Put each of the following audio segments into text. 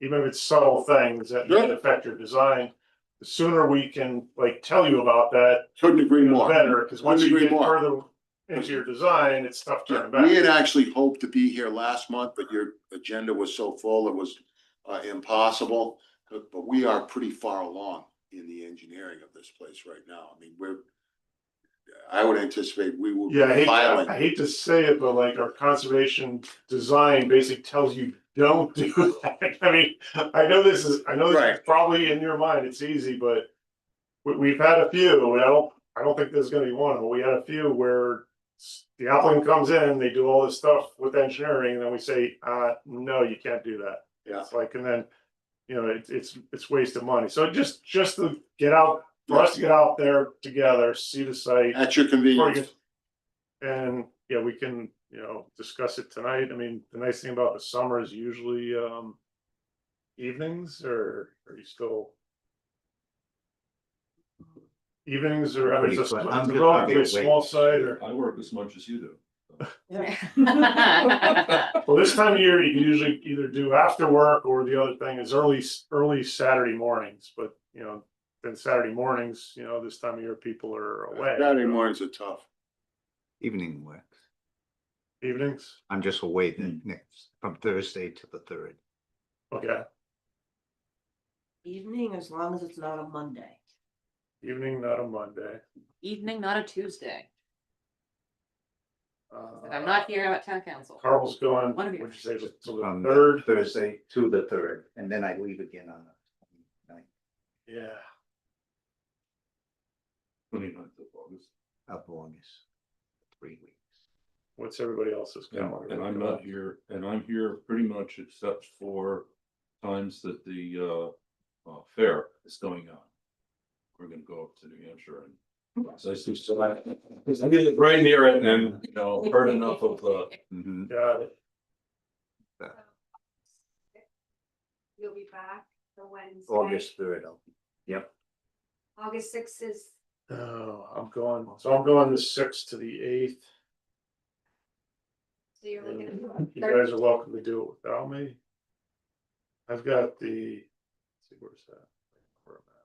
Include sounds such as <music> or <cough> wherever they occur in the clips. even if it's subtle things that Sure. affect your design, the sooner we can like tell you about that, Couldn't agree the more. better, because once you Couldn't get agree more. further into your design, it's tough to turn Yeah, We back. had actually hoped to be here last month, but your agenda was so full, it was uh impossible. But but we are pretty far along in the engineering of this place right now. I mean, we're. I would anticipate we will. be Yeah, I hate, filing. I hate to say it, but like our conservation design basically tells you, don't <laughs> do that. I mean, I know this is, I know this is Right. probably in your mind, it's easy, but we, we've had a few, and I don't, I don't think there's gonna be one, but we had a few where s- the applicant comes in, they do all this stuff with engineering, and then we say, uh, no, you can't do that. Yeah. It's like, and then, you know, it's, it's, it's waste of money. So just, just to get out, for us to get out there together, see the site. At your convenience. And, yeah, we can, you know, discuss it tonight. I mean, the nice thing about the summer is usually, um. Evenings or are you still? Evenings or, I mean, it's a Pretty quick. I'm it's good. a Okay, bit small wait. side or, I work as much as you do. <laughs> well, this time of year, you can usually either do after work or the other thing is early, early Saturday mornings, but, you know. Then Saturday mornings, you know, this time of year, people are away. Saturday mornings are tough. Evening works. Evenings, I'm just away the next, from Thursday to the third. okay, Evening, as long as it's not a Monday. evening, not a Monday. Evening, not a Tuesday. Uh, If I'm not here, I'm at town council. Carl's going, One what'd of you. you say, to From the Um, third? Thursday to the third, and then I leave again on the 29th Yeah, Twenty-ninth of August. of August. Three weeks. what's everybody else's And, calendar? and I'm not here, and I'm here pretty much except for times that the, uh, uh, fair is going on. We're gonna go up to New Hampshire and. So I see, so I, because I'm getting right near it and, you know, heard enough of the, Mhm. Got it. You'll be back the Wednesday. August third, I'll be- August sixth is, Oh, I'm going, so I'm going the sixth to the eighth. so you're looking You at third, guys are welcome to do it without me. I've got the, let's see, where's that? Where am I?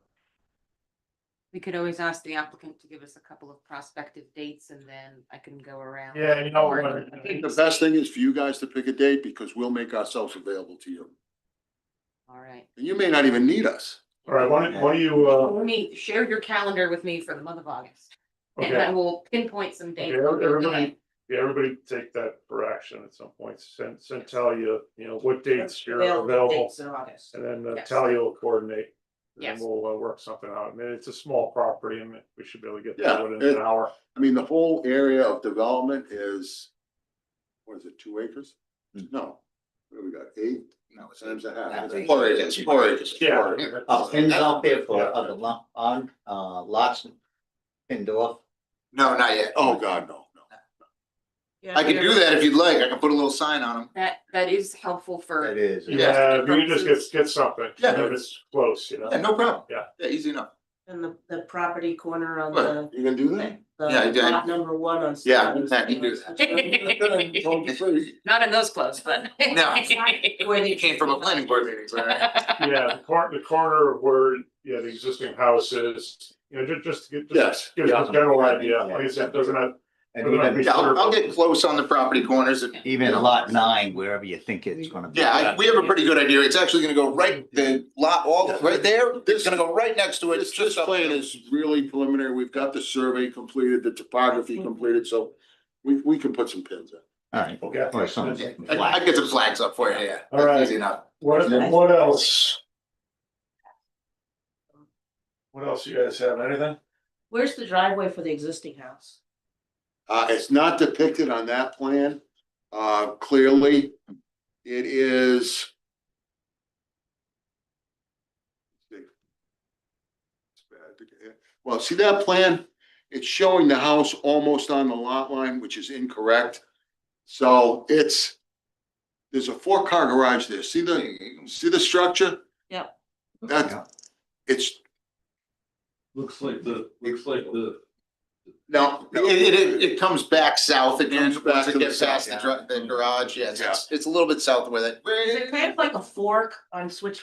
We could always ask the applicant to give us a couple of prospective dates and then I can go around. Yeah, you know what? I think- The best thing is for you guys to pick a date because we'll make ourselves available to you. All right. And you may not even need us. All right, why don't, why don't you, uh, Let me share your calendar with me for the month of August and okay, I will pinpoint some dates. Okay, that we'll do everybody- it. yeah, everybody take that for action at some point, send, send Talia, you know, what dates you're available. Dates in August. And then uh, Yes. Talia will coordinate. and then Yes. We'll uh, work something out. I mean, it's a small property and we should be able to get Yeah, that within it- an hour. I mean, the whole area of development is, what is it, two acres? Hmm. No, what do we got, eight No, it's- times a half? That's- Four acres, four acres. Yeah. Uh, pins out there for Yeah. other lot, on, uh, lots pinned off. No, not yet. Oh, God, no, no. I can do that if you'd like. I can put a little sign on them. That, that is helpful It for, is. Yeah, Yes. we just get, get something, Yeah. if it's close, you know? Yeah, no problem. Yeah. Yeah, easy enough. And the, the property corner on the, What? You gonna do that? Yeah, I the did. lot number one on. Yeah, Stevens. I can do that. <laughs> <laughs> not in those clothes, but. No. You came from a planning board meeting, right? Yeah, the corner, the corner of where, yeah, the existing house is, you know, ju- just to get, Yes. just give us a Yeah. general idea, like I said, doesn't have, And even, Yeah, I'll, I'll get close on the property corners. and- even lot nine, wherever you think it's gonna be. Yeah, I- we have a pretty good idea. It's actually gonna go right, the lot, all, oh, right there, it's gonna go right next to it. This, It's this just up- plan is really preliminary. We've got the survey completed, the topography completed, so we, we can put some pins in. All right. Okay. Or something. I, I get some flags up for you, yeah. All right. Easy enough. what, Yeah. what else? What else you guys have, anything? Where's the driveway for the existing house? Uh, it's not depicted on that plan, uh, clearly. It is. Well, see that plan? It's showing the house almost on the lot line, which is incorrect. So it's, there's a four-car garage there. See the, see the structure? Yep. That, it's looks like the, looks like the, the No, it, it, it comes back south again, Comes back once to it the gets south, past the yeah. dri- the garage, yeah, it's, it's a little bit south of where that. Is it kind of like a fork on Switch